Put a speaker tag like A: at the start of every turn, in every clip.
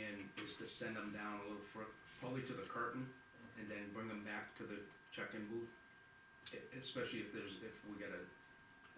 A: to send them down a little fur, probably to the curtain, and then bring them back to the check-in booth. E- Especially if there's, if we get a,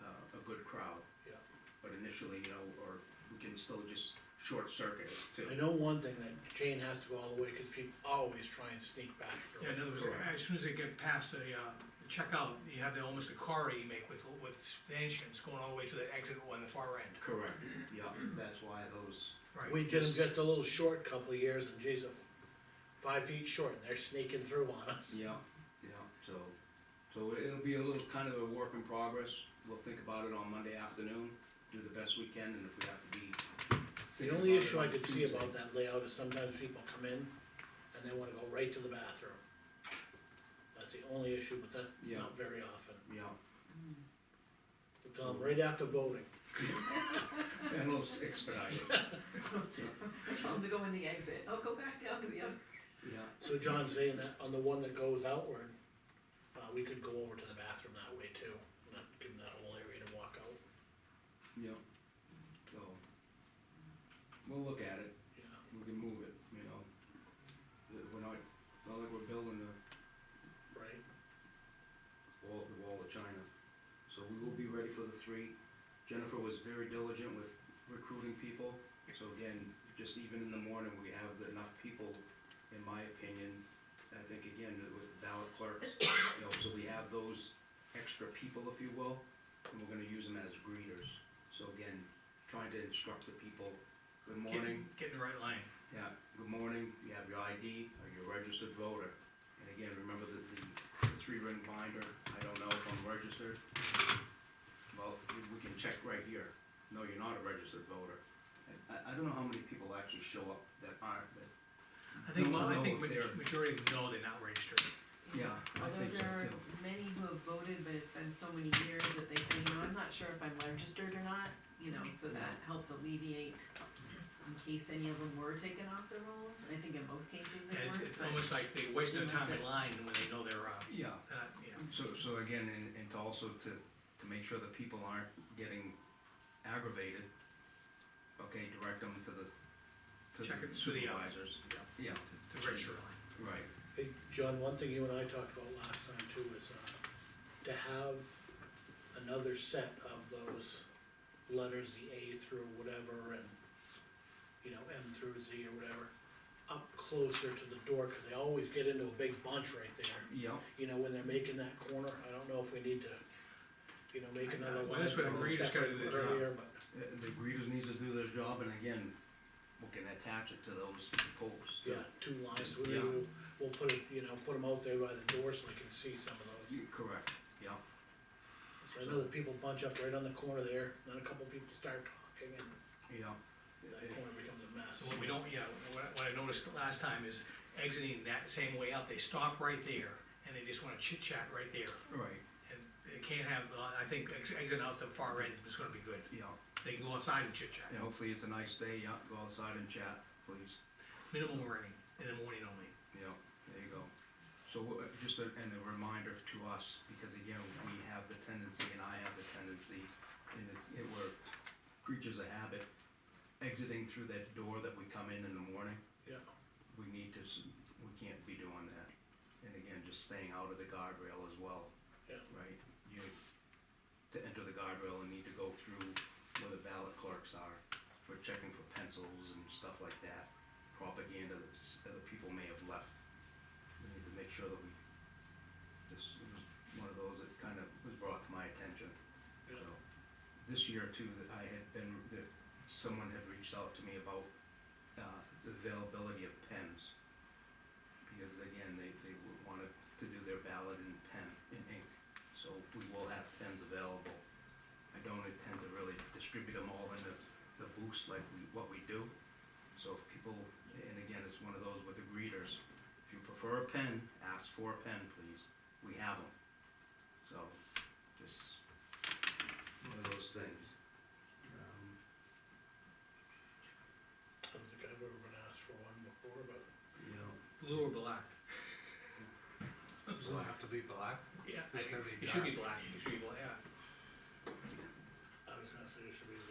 A: uh, a good crowd.
B: Yeah.
A: But initially, you know, or we can still just short circuit it
B: I
A: too.
B: know one thing, that Jane has to go all the way, cause people always try and sneak back through.
C: Yeah, in other words,
A: Correct.
C: as soon as they get past the, uh, the checkout, you have the, almost a corridor you make with, with stanchions going all the way to the exit on the far end.
A: Correct, yeah, that's why those,
C: Right.
B: We did them just a little short couple of years, and geez, a f- five feet short, and they're sneaking through on us.
A: yeah, yeah, so. So it'll be a little, kind of a work in progress, we'll think about it on Monday afternoon, do the best we can, and if we have to be.
B: The
A: thinking
B: only
A: about it
B: issue I
A: on
B: could see
A: Tuesday.
B: about that layout is sometimes people come in and they wanna go right to the bathroom. That's the only issue, but that's
A: Yeah.
B: not very often.
A: Yeah,
B: So Tell them right after voting,
A: and we'll expedite it.
D: I tell them to go in the exit, oh, go back down to the other.
A: Yeah,
B: so John's saying that on the one that goes outward, uh, we could go over to the bathroom that way too, not give them that whole area to walk out,
A: yeah. So, we'll look at it,
B: yeah.
A: we can move it, you know. Uh, We're not, it's not like we're building a
B: Right,
A: wall, the wall of China. So we will be ready for the three. Jennifer was very diligent with recruiting people, so again, just even in the morning, we have enough people, in my opinion. I think again, with ballot clerks, you know, so we have those extra people, if you will, and we're gonna use them as greeters. So again, trying to instruct the people, good morning,
C: Getting, getting the right line.
A: yeah, good morning, you have your ID, are you a registered voter? And again, remember that the three ring binder, I don't know if I'm registered. Well, we we can check right here, no, you're not a registered voter. And I, I don't know how many people actually show up that aren't, that,
C: I think,
A: No,
C: I
A: no,
C: think
A: over there.
C: ma- majority of them know they're not registered.
A: yeah, I
D: Although
A: think so
D: there are
A: too.
D: many who have voted, but it's been so many years that they say, you know, I'm not sure if I'm registered or not, you know, so that helps alleviate in case any of them were taken off their rolls, I think in most cases they
C: And It's,
D: weren't,
C: it's
D: but-
C: almost like they waste their
D: Unless
C: time in
D: they-
C: line when they know they're, uh,
A: Yeah,
C: uh, yeah.
A: so, so again, and, and to also to, to make sure that people aren't getting aggravated, okay, direct them to the, to
C: Check
A: the
C: it through the, uh,
A: supervisors. Yeah,
C: The register line.
A: right,
B: hey, John, one thing you and I talked about last time too is, uh, to have another set of those letters, the A through whatever and, you know, M through Z or whatever, up closer to the door, cause they always get into a big bunch right there.
A: yeah.
B: You know, when they're making that corner, I don't know if we need to, you know, make another one.
C: Well, that's what
B: a little
C: the greeters gotta
B: separate
C: do their job.
B: earlier, but-
A: Uh, The greeters needs to do their job, and again, we can attach it to those posts.
B: Yeah, two lines, we,
A: Yeah.
B: will we'll put it, you know, put them out there by the door so they can see some of those.
A: You- Correct, yeah,
B: So I know that people bunch up right on the corner there, then a couple people start talking and
A: yeah.
B: that corner becomes a
C: So What
B: mess.
C: we don't, yeah, what I, what I noticed last time is exiting that same way out, they stop right there and they just wanna chit chat right there.
A: Right,
C: And they can't have, uh, I think ex- exiting out the far end is gonna be good.
A: yeah,
C: They can go outside and chit chat.
A: and hopefully it's a nice day, yeah, go outside and chat, please,
C: Minimum rain in the morning only.
A: yeah, there you go. So, wha- just a, and a reminder to us, because again, we have the tendency, and I have the tendency, and it, it we're creatures of habit, exiting through that door that we come in in the morning,
B: Yeah,
A: we need to, s- we can't be doing that. And again, just staying out of the guardrail as well.
B: Yeah.
A: Right, you, to enter the guardrail and need to go through where the ballot clerks are, we're checking for pencils and stuff like that. Propaganda that s- other people may have left, we need to make sure that we, this was one of those that kind of was brought to my attention.
B: yeah,
A: So, This year too, that I had been, that someone had reached out to me about, uh, the availability of pens. Because again, they, they would wanted to do their ballot in pen, in ink, so we will have pens available. I don't intend to really distribute them all in the, the booths like we, what we do. So if people, and again, it's one of those with the greeters, if you prefer a pen, ask for a pen, please, we have them. So, just one of those things. Um,
B: I don't think I've ever been asked for one before, but
A: You know,
C: Blue or black?
E: Does it have to be black?
C: Yeah.
E: It's gotta be
C: It should be
E: dark.
C: black, it should be black, yeah.
B: I was gonna say it should be